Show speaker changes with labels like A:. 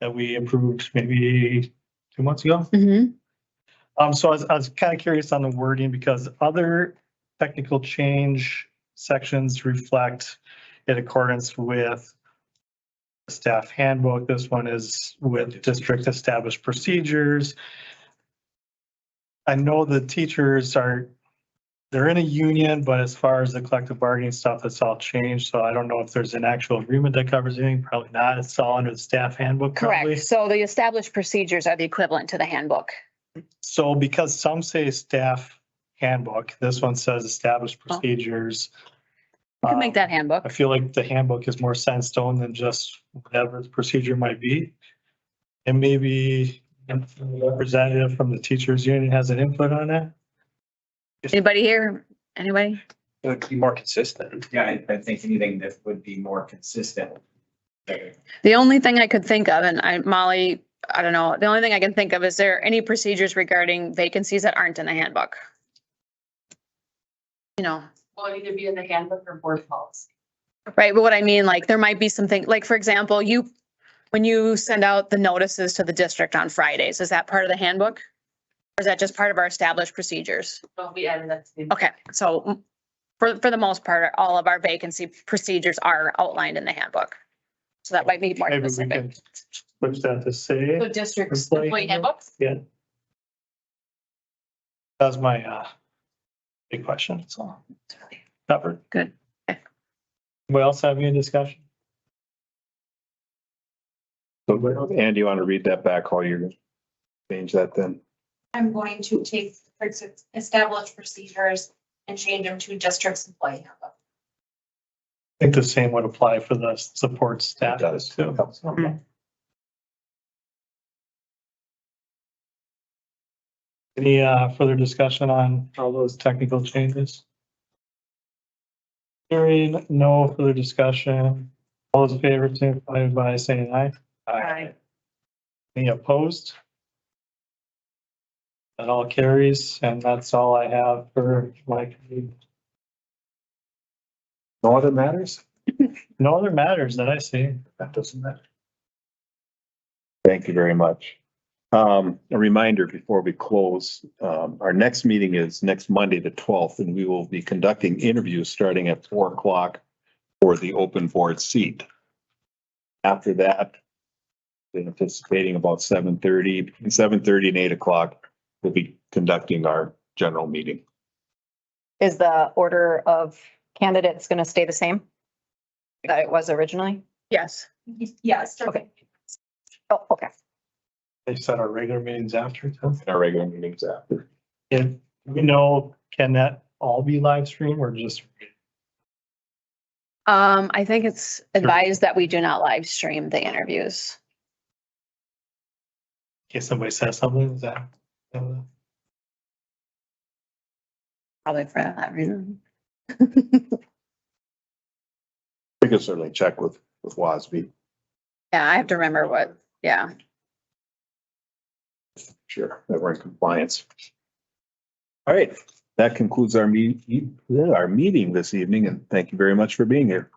A: that we approved maybe two months ago.
B: Mhm.
A: Um, so I was, I was kind of curious on the wording because other technical change sections reflect in accordance with staff handbook. This one is with district established procedures. I know the teachers are, they're in a union, but as far as the collective bargaining stuff, it's all changed. So I don't know if there's an actual agreement that covers anything. Probably not. It's all under the staff handbook. probably.
B: Correct. So the established procedures are the equivalent to the handbook.
A: So because some say staff handbook, this one says established
B: Oh.
A: procedures. Um,
B: You can make that handbook.
A: I feel like the handbook is more sandstone than just whatever the procedure might be. And maybe a representative from the teachers union has an input on that.
B: Anybody here? Anybody?
C: It would be more consistent.
D: Yeah, I, I think anything that would be more consistent.
B: The only thing I could think of, and I, Molly, I don't know, the only thing I can think of, is there any procedures regarding vacancies that aren't in the handbook? You know,
E: Will it either be in the handbook or board policy?
B: right, but what I mean, like, there might be something, like, for example, you, when you send out the notices to the district on Fridays, is that part of the handbook? Or is that just part of our established procedures?
E: Don't be added that to the.
B: Okay, so mm, for, for the most part, all of our vacancy procedures are outlined in the handbook. So that might be more
A: Maybe we
B: specific.
A: can switch that to
E: So
A: say,
E: districts,
A: Employee
E: employee handbooks?
A: that's my, uh, big question, so. Covered.
B: Good. Okay.
A: Anybody else have any discussion?
C: And you want to read that back, all you change that then?
F: I'm going to take for ex- established procedures and change them to district's employee handbook.
A: I think the same would apply for the support staff.
C: It does.
A: too.
B: Mm.
A: Any uh, further discussion on all those technical changes? Hearing no further discussion, all those in favor, signify by saying aye.
B: Aye.
A: Any opposed? That all carries, and that's all I have for my committee.
C: No other matters?
A: No other matters that I see.
C: That doesn't matter. Thank you very much. Um, a reminder before we close, um, our next meeting is next Monday, the twelfth, and we will be conducting interviews starting at four o'clock for the open board seat. After that, we're anticipating about 7:30, 7:30 and eight o'clock, we'll be conducting our general meeting.
B: Is the order of candidates going to stay the same that it was originally? Yes.
F: Yes.
B: Okay. Oh, okay.
A: They set our regular meetings after. too.
C: Our regular meetings after.
A: And we know, can that all be live streamed or just?
B: Um, I think it's advised that we do not live stream the interviews.
A: In case somebody says something, is that? uh,
B: Probably for that reason.
C: We can certainly check with, with WASB,
B: Yeah, I have to remember what, yeah.
C: sure, that we're in compliance. e, All right, that concludes our meet, our meeting this evening, and thank you very much for being here.